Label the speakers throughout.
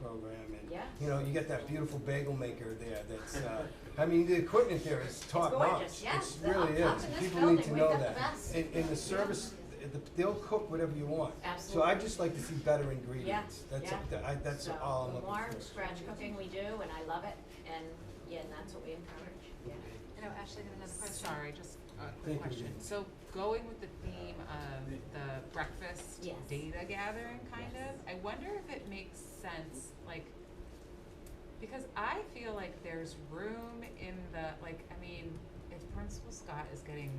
Speaker 1: program and,
Speaker 2: Yeah.
Speaker 1: you know, you got that beautiful bagel maker there that's, uh, I mean, the equipment there is top notch.
Speaker 2: gorgeous, yes.
Speaker 1: It really
Speaker 2: Up- up
Speaker 1: is.
Speaker 2: in this
Speaker 1: People need
Speaker 2: building,
Speaker 1: to
Speaker 2: we've
Speaker 1: know
Speaker 2: got the
Speaker 1: that.
Speaker 2: best.
Speaker 1: And, and the service, the, they'll cook whatever you want. So
Speaker 2: Absolutely.
Speaker 1: I'd just like to see better ingredients. That's,
Speaker 2: yeah.
Speaker 1: that- I, that's
Speaker 2: So
Speaker 1: all I'm
Speaker 2: the
Speaker 1: looking for.
Speaker 2: more scratch cooking we do, and I love it, and, yeah, and that's what we encourage, yeah.
Speaker 3: You know, Ashley had another question.
Speaker 4: Sorry, just a
Speaker 1: Uh, Thank you,
Speaker 4: quick question.
Speaker 1: Jean.
Speaker 4: So going with the theme of the breakfast
Speaker 2: Yes.
Speaker 4: data gathering kind of, I wonder if it makes sense, like, because I feel like there's room in the, like, I mean, if Principal Scott is getting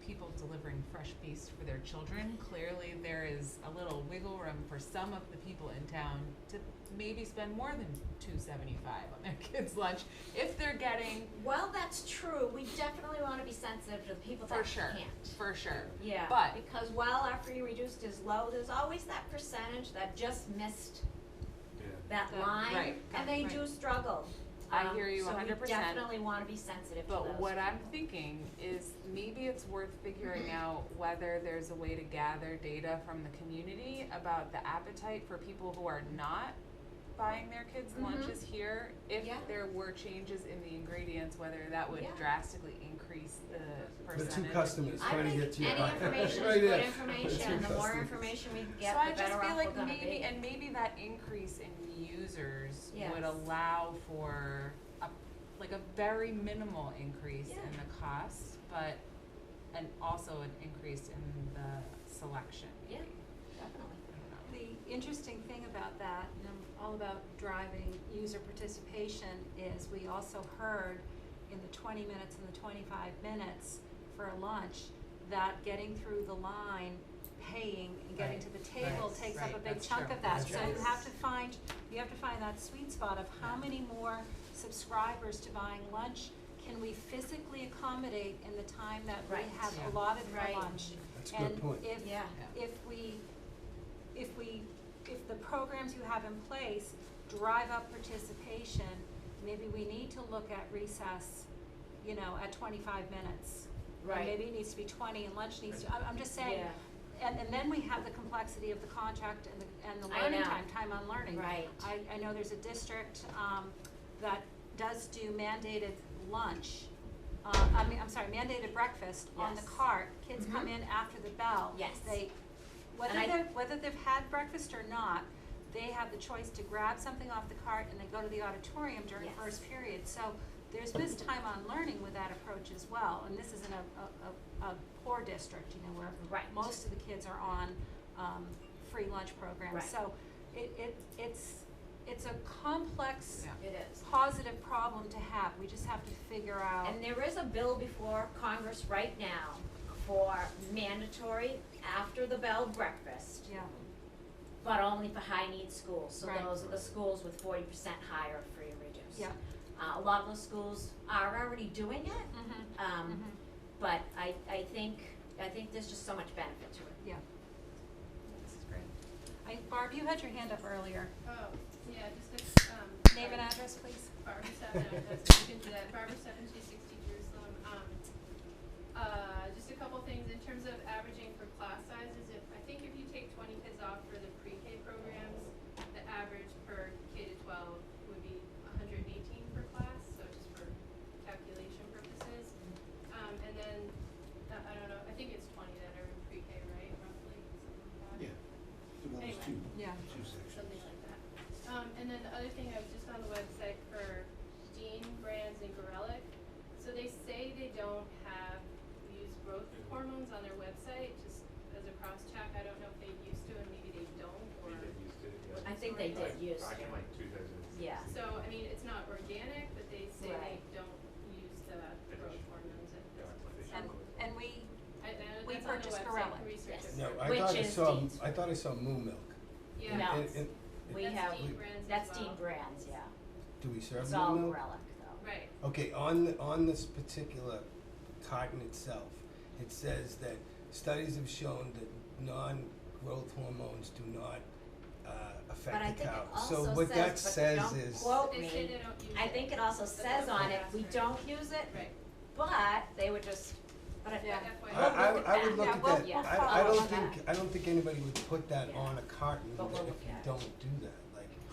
Speaker 4: people delivering fresh feast for their children, clearly there is a little wiggle room for some of the people in town to maybe spend more than two seventy-five on their kids' lunch if they're getting
Speaker 2: Well, that's true, we definitely wanna be sensitive to the people that
Speaker 4: For
Speaker 2: can't.
Speaker 4: sure, for sure.
Speaker 2: Yeah,
Speaker 4: But-
Speaker 2: because while our free reduced is low, there's always that percentage that just missed that
Speaker 4: That-
Speaker 2: line,
Speaker 4: right,
Speaker 2: and they
Speaker 4: right.
Speaker 2: do struggle.
Speaker 4: I
Speaker 2: Um,
Speaker 4: hear you
Speaker 2: So we
Speaker 4: 100%.
Speaker 2: definitely want to be sensitive to those.
Speaker 4: But what I'm thinking is maybe it's worth
Speaker 2: Mm-hmm.
Speaker 4: figuring out whether there's a way to gather data from the community about the appetite for people who are not buying their kids
Speaker 2: Mhm.
Speaker 4: lunches here. If
Speaker 2: Yeah.
Speaker 4: there were changes in the ingredients, whether that would
Speaker 2: Yeah.
Speaker 4: drastically increase the
Speaker 1: The
Speaker 4: percentage.
Speaker 1: two customers
Speaker 2: I
Speaker 1: trying to
Speaker 2: think
Speaker 1: get to you.
Speaker 2: any information is
Speaker 1: Right there.
Speaker 2: good
Speaker 1: The
Speaker 2: information,
Speaker 1: two
Speaker 2: and the more
Speaker 1: customers.
Speaker 2: information we
Speaker 4: So
Speaker 2: get, the
Speaker 4: I just
Speaker 2: better
Speaker 4: feel
Speaker 2: off we're
Speaker 4: like
Speaker 2: gonna be.
Speaker 4: maybe, and maybe that increase in users
Speaker 2: Yes.
Speaker 4: would allow for a, like a very minimal increase in
Speaker 2: Yeah.
Speaker 4: the cost, but, and also an increase in the selection,
Speaker 2: Yeah,
Speaker 4: maybe.
Speaker 2: definitely.
Speaker 4: I don't know.
Speaker 3: The interesting thing about that, and I'm all about driving user participation, is we also heard in the twenty minutes and the twenty-five minutes for a lunch, that getting through the line, paying and getting
Speaker 4: Right,
Speaker 3: to the table
Speaker 4: right,
Speaker 3: takes up a
Speaker 4: right,
Speaker 3: big
Speaker 4: that's
Speaker 3: chunk
Speaker 4: true,
Speaker 3: of that.
Speaker 4: that's
Speaker 3: So
Speaker 4: true.
Speaker 3: you have to find, you have to find that sweet spot of how
Speaker 4: Yeah.
Speaker 3: many more subscribers to buying lunch can we physically accommodate in the time that we
Speaker 2: Right.
Speaker 3: have
Speaker 4: Yeah.
Speaker 3: allotted
Speaker 2: Right.
Speaker 3: for lunch?
Speaker 1: That's a good point.
Speaker 3: And
Speaker 2: Yeah.
Speaker 3: if, if we, if we, if the programs you have in place drive up participation, maybe we need to look at recess, you know, at twenty-five minutes. Or
Speaker 2: Right.
Speaker 3: maybe it needs to be twenty and lunch needs to, I'm, I'm just saying,
Speaker 2: Yeah.
Speaker 3: and, and then we have the complexity of the contract and the, and the
Speaker 2: I
Speaker 3: learning
Speaker 2: know.
Speaker 3: time, time on learning.
Speaker 2: Right.
Speaker 3: I, I know there's a district, um, that does do mandated lunch, uh, I mean, I'm sorry, mandated breakfast on the
Speaker 2: Yes.
Speaker 3: cart. Kids come
Speaker 2: Mhm.
Speaker 3: in after the bell.
Speaker 2: Yes.
Speaker 3: They, whether
Speaker 2: I-
Speaker 3: they've, whether they've had breakfast or not, they have the choice to grab something off the cart and then go to the auditorium during
Speaker 2: Yes.
Speaker 3: first period. So there's this time on learning with that approach as well, and this is in a, a, a, a poor district, you know, where
Speaker 2: Right.
Speaker 3: most of the kids are on, um, free lunch programs.
Speaker 2: Right.
Speaker 3: So it, it, it's, it's a complex,
Speaker 4: Yeah.
Speaker 2: It is.
Speaker 3: positive problem to have. We just have to figure out.
Speaker 2: And there is a bill before Congress right now for mandatory after the bell breakfast,
Speaker 3: Yeah,
Speaker 2: but only for high need schools. So
Speaker 3: Right.
Speaker 2: those are the schools with forty percent higher free and reduced.
Speaker 3: yeah.
Speaker 2: Uh, a lot of those schools are already doing it,
Speaker 3: Mm-hmm.
Speaker 2: um, but I, I think, I think there's just so much benefit to it.
Speaker 3: Yeah. This is great. I, Barb, you had your hand up earlier.
Speaker 5: Oh, yeah, just a, um.
Speaker 3: Name and
Speaker 5: Barbara-
Speaker 3: address, please.
Speaker 5: Barbara Steffen, I was looking into that, Barbara Steffen, two sixty Jerusalem, um, uh, just a couple things in terms of averaging for class sizes, if, I think if you take twenty kids off for the pre-K programs, the average per K to twelve would be hundred and eighteen per class, so just for calculation purposes. Um, and then, uh, I don't know, I think it's twenty that are in pre-K, right, roughly, something like that?
Speaker 6: Yeah, so that was
Speaker 5: Anyway.
Speaker 6: two,
Speaker 3: Yeah.
Speaker 6: two sections.
Speaker 5: something like that. Um, and then the other thing, I was just on the website for Dean Brands and Gorelick. So they say they don't have use growth hormones on their website, just as a cross check. I don't know if they used to and maybe they don't or.
Speaker 2: I think they did use
Speaker 7: Back
Speaker 2: it.
Speaker 7: in like two thousand.
Speaker 2: Yeah,
Speaker 5: So, I mean, it's not organic, but they say they
Speaker 2: Right.
Speaker 5: don't use the growth hormones at this point.
Speaker 3: And, and we,
Speaker 5: I, I know
Speaker 3: we
Speaker 5: that's on the
Speaker 3: purchased
Speaker 5: website,
Speaker 3: Gorelick.
Speaker 5: can research it.
Speaker 2: Yes.
Speaker 1: No,
Speaker 5: further.
Speaker 1: I
Speaker 2: Which
Speaker 1: thought I
Speaker 2: is
Speaker 1: saw,
Speaker 2: Dean's.
Speaker 1: I thought I saw moo milk.
Speaker 5: Yeah.
Speaker 2: No.
Speaker 1: And- and-
Speaker 2: we
Speaker 5: That's
Speaker 2: have,
Speaker 5: Dean Brands as
Speaker 2: that's Dean
Speaker 5: well.
Speaker 2: Brands, yeah.
Speaker 1: do we serve
Speaker 2: It's all
Speaker 1: moo milk?
Speaker 2: relic though.
Speaker 5: Right,
Speaker 1: Okay, on, the- on this particular carton itself, it says that studies have shown that non-growth hormones do not, uh,
Speaker 2: But I
Speaker 1: affect the
Speaker 2: think it
Speaker 1: cow. So
Speaker 2: also
Speaker 1: what that
Speaker 2: says, but
Speaker 1: says
Speaker 2: don't
Speaker 1: is,
Speaker 2: quote
Speaker 5: they
Speaker 2: Oh, me.
Speaker 5: say they don't use it.
Speaker 2: I think it also says
Speaker 5: that's
Speaker 2: on it,
Speaker 5: what
Speaker 2: we
Speaker 5: I asked her.
Speaker 2: don't use it,
Speaker 5: Right,
Speaker 2: but they would just, but I,
Speaker 3: Yeah.
Speaker 1: I,
Speaker 5: FYI.
Speaker 2: We'll
Speaker 1: I,
Speaker 2: look at
Speaker 1: I would
Speaker 2: that.
Speaker 1: look
Speaker 3: Yeah,
Speaker 1: at
Speaker 3: we'll-
Speaker 1: that.
Speaker 2: yeah.
Speaker 1: I, I
Speaker 2: Follow
Speaker 1: don't
Speaker 2: up on
Speaker 1: think, I don't think anybody would put that
Speaker 2: Yeah.
Speaker 1: on a carton
Speaker 2: But we'll
Speaker 1: if
Speaker 2: look
Speaker 1: you
Speaker 2: at it.
Speaker 1: don't do that.